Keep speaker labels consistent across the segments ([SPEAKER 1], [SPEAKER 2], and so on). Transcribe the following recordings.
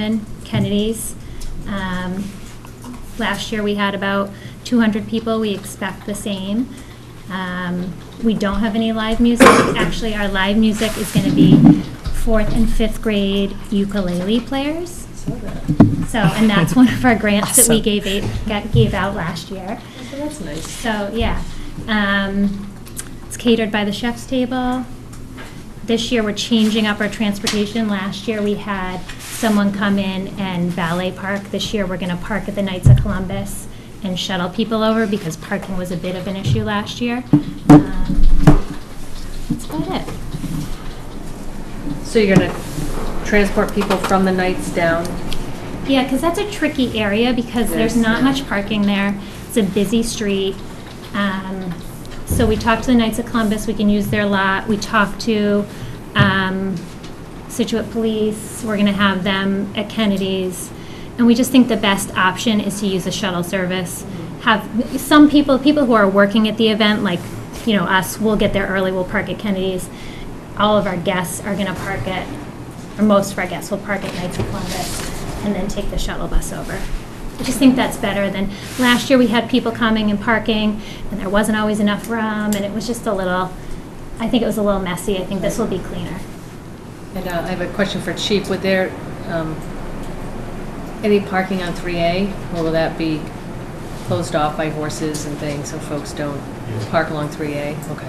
[SPEAKER 1] in Kennedy's. Um, Last year, we had about 200 people. We expect the same. Um, We don't have any live music. Actually, our live music is going to be fourth and fifth grade ukulele players. So, and that's one of our grants that we
[SPEAKER 2] Awesome.
[SPEAKER 1] gave, eight- got- gave out last year.
[SPEAKER 3] That's nice.
[SPEAKER 1] So, yeah. Um, It's catered by the chef's table. This year, we're changing up our transportation. Last year, we had someone come in and valet park. This year, we're going to park at the Knights of Columbus and shuttle people over because parking was a bit of an issue last year. Um, That's about it.
[SPEAKER 3] So you're gonna transport people from the nights down?
[SPEAKER 1] Yeah, because that's a tricky area because there's
[SPEAKER 3] Yes,
[SPEAKER 1] not
[SPEAKER 3] yeah.
[SPEAKER 1] much parking there. It's a busy street. Um, So we talked to the Knights of Columbus, we can use their lot. We talked to um, Situate Police, we're going to have them at Kennedy's. And we just think the best option is to use a shuttle service. Have, some people, people who are working at the event, like, you know, us, we'll get there early, we'll park at Kennedy's. All of our guests are going to park at, or most of our guests will park at Knights of Columbus and then take the shuttle bus over. I just think that's better than, last year we had people coming and parking, and there wasn't always enough room, and it was just a little, I think it was a little messy. I think this will be cleaner.
[SPEAKER 3] And uh, I have a question for Chief. Would there, um, any parking on 3A, will that be closed off by horses and things so folks don't park along 3A? Okay.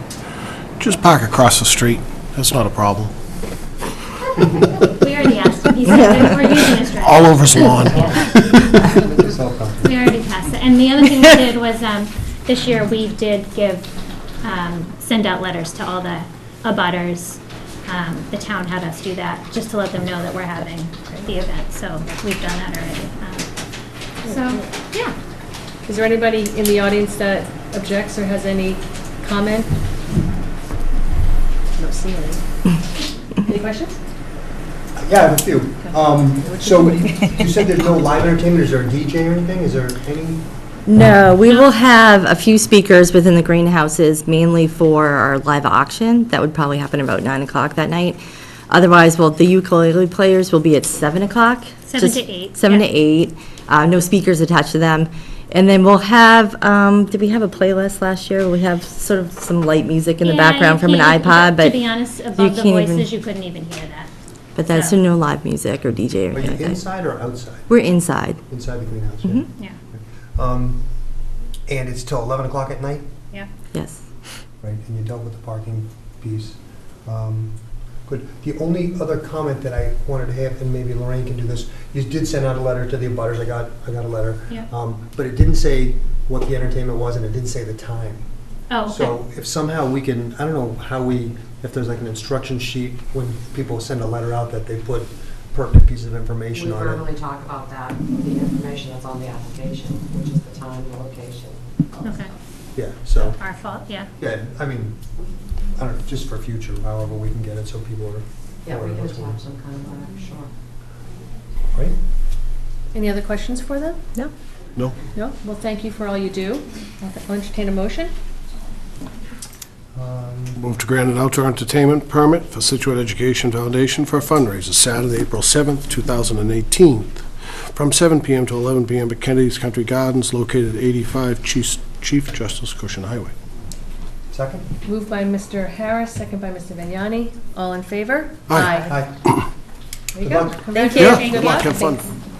[SPEAKER 4] Just park across the street. That's not a problem.
[SPEAKER 1] We already asked him, he said that we're using his driveway.
[SPEAKER 4] All over his lawn.
[SPEAKER 1] We already passed it. And the other thing we did was, um, this year, we did give, um, send out letters to all the abutters. Um, The town had us do that, just to let them know that we're having the event, so we've done that already. Um, So, yeah.
[SPEAKER 3] Is there anybody in the audience that objects or has any comment? No, see any. Any questions?
[SPEAKER 5] Yeah, I have a few. Um, So you said there's no live entertainment, is there a DJ or anything? Is there any?
[SPEAKER 2] No, we will have a few speakers within the greenhouses, mainly for our live auction. That would probably happen about 9 o'clock that night. Otherwise, well, the ukulele players will be at 7 o'clock.
[SPEAKER 1] Seven
[SPEAKER 2] just
[SPEAKER 1] to eight,
[SPEAKER 2] 7 to
[SPEAKER 1] yeah.
[SPEAKER 2] 8, uh, no speakers attached to them. And then we'll have, um, did we have a playlist last year? We have sort of some light music in the
[SPEAKER 1] Yeah, you
[SPEAKER 2] background from an
[SPEAKER 1] can't-
[SPEAKER 2] iPod, but
[SPEAKER 1] To be honest, above the
[SPEAKER 2] can't even-
[SPEAKER 1] voices, you couldn't even hear that.
[SPEAKER 2] But that's
[SPEAKER 1] Yeah.
[SPEAKER 2] no live music or DJ or
[SPEAKER 5] Are
[SPEAKER 2] anything
[SPEAKER 5] you
[SPEAKER 2] like that.
[SPEAKER 5] inside or outside?
[SPEAKER 2] We're inside.
[SPEAKER 5] Inside the greenhouse, yeah.
[SPEAKER 2] Mhm.
[SPEAKER 1] Yeah,
[SPEAKER 5] Um, And it's till 11 o'clock at night?
[SPEAKER 1] yeah.
[SPEAKER 2] Yes.
[SPEAKER 5] Right, and you dealt with the parking piece. Um, Good. The only other comment that I wanted to have, and maybe Lorraine can do this, you did send out a letter to the abutters. I got, I got a letter.
[SPEAKER 1] Yeah.
[SPEAKER 5] Um, But it didn't say what the entertainment was, and it didn't say the time.
[SPEAKER 1] Oh, okay.
[SPEAKER 5] So if somehow we can, I don't know how we, if there's like an instruction sheet when people send a letter out that they put pertinent pieces of
[SPEAKER 6] We
[SPEAKER 5] information on
[SPEAKER 6] verbally
[SPEAKER 5] it.
[SPEAKER 6] talk about that, the information that's on the application, which is the time, the location. all that
[SPEAKER 1] Okay.
[SPEAKER 6] stuff.
[SPEAKER 5] Yeah, so,
[SPEAKER 1] Our fault, yeah.
[SPEAKER 5] yeah, I mean, I don't know, just for future, however we can get it so people are.
[SPEAKER 6] Yeah,
[SPEAKER 5] aware
[SPEAKER 6] we
[SPEAKER 5] of
[SPEAKER 6] can
[SPEAKER 5] what's going on.
[SPEAKER 6] attach some kind of, letter, sure.
[SPEAKER 5] Right?
[SPEAKER 3] Any other questions for them?
[SPEAKER 2] No?
[SPEAKER 4] No?
[SPEAKER 3] No? Well, thank you for all you do. I'll entertain a motion.
[SPEAKER 5] Um,
[SPEAKER 4] Move to grant an outdoor entertainment permit for Situate Education Foundation for a fundraiser Saturday, April 7th, 2018, from 7 p.m. to 11 p.m. at Kennedy's Country Gardens, located at 85 Chief Chief Justice Cushion Highway.
[SPEAKER 5] Second?
[SPEAKER 3] Moved by Mr. Harris, second by Mr. Vignani. All in favor?
[SPEAKER 4] Aye.
[SPEAKER 5] Hi.
[SPEAKER 3] There you
[SPEAKER 5] Good
[SPEAKER 3] go.
[SPEAKER 5] luck.
[SPEAKER 3] Thank
[SPEAKER 1] you.
[SPEAKER 3] you.
[SPEAKER 4] Yeah,
[SPEAKER 1] Thank
[SPEAKER 4] good luck, have fun.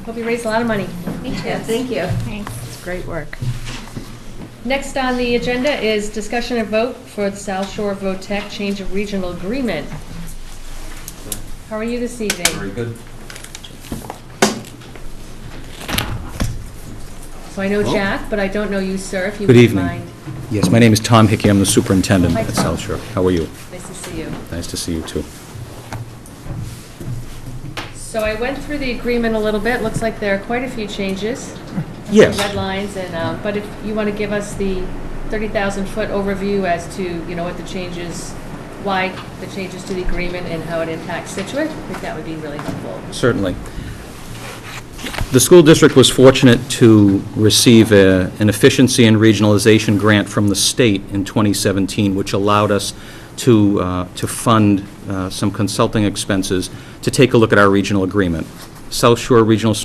[SPEAKER 3] Hope you raised a lot of money.
[SPEAKER 1] Thank you. Thanks.
[SPEAKER 3] It's great work. Next on the agenda is discussion and vote for the South Shore VOTEC change of regional agreement. How are you this evening?
[SPEAKER 7] Very good.
[SPEAKER 3] So I know Jack, but I don't know you, sir, if you
[SPEAKER 7] Good
[SPEAKER 3] would
[SPEAKER 7] evening.
[SPEAKER 3] mind.
[SPEAKER 7] Yes, my name is Tom Hickey, I'm the superintendent
[SPEAKER 3] Hi,
[SPEAKER 7] at
[SPEAKER 3] Tom.
[SPEAKER 7] South Shore. How are you?
[SPEAKER 3] Nice to see you.
[SPEAKER 7] Nice to see you, too.
[SPEAKER 3] So I went through the agreement a little bit. Looks like there are quite a few changes.
[SPEAKER 7] Yes.
[SPEAKER 3] Red lines and, uh, but if you want to give us the 30,000-foot overview as to, you know, what the changes, why the changes to the agreement and how it impacts Situate, I think that would be really helpful.
[SPEAKER 7] Certainly. The school district was fortunate to receive a- an efficiency and regionalization grant from the state in 2017, which allowed us to uh, to fund uh, some consulting expenses to take a look at our regional agreement. South Shore Regional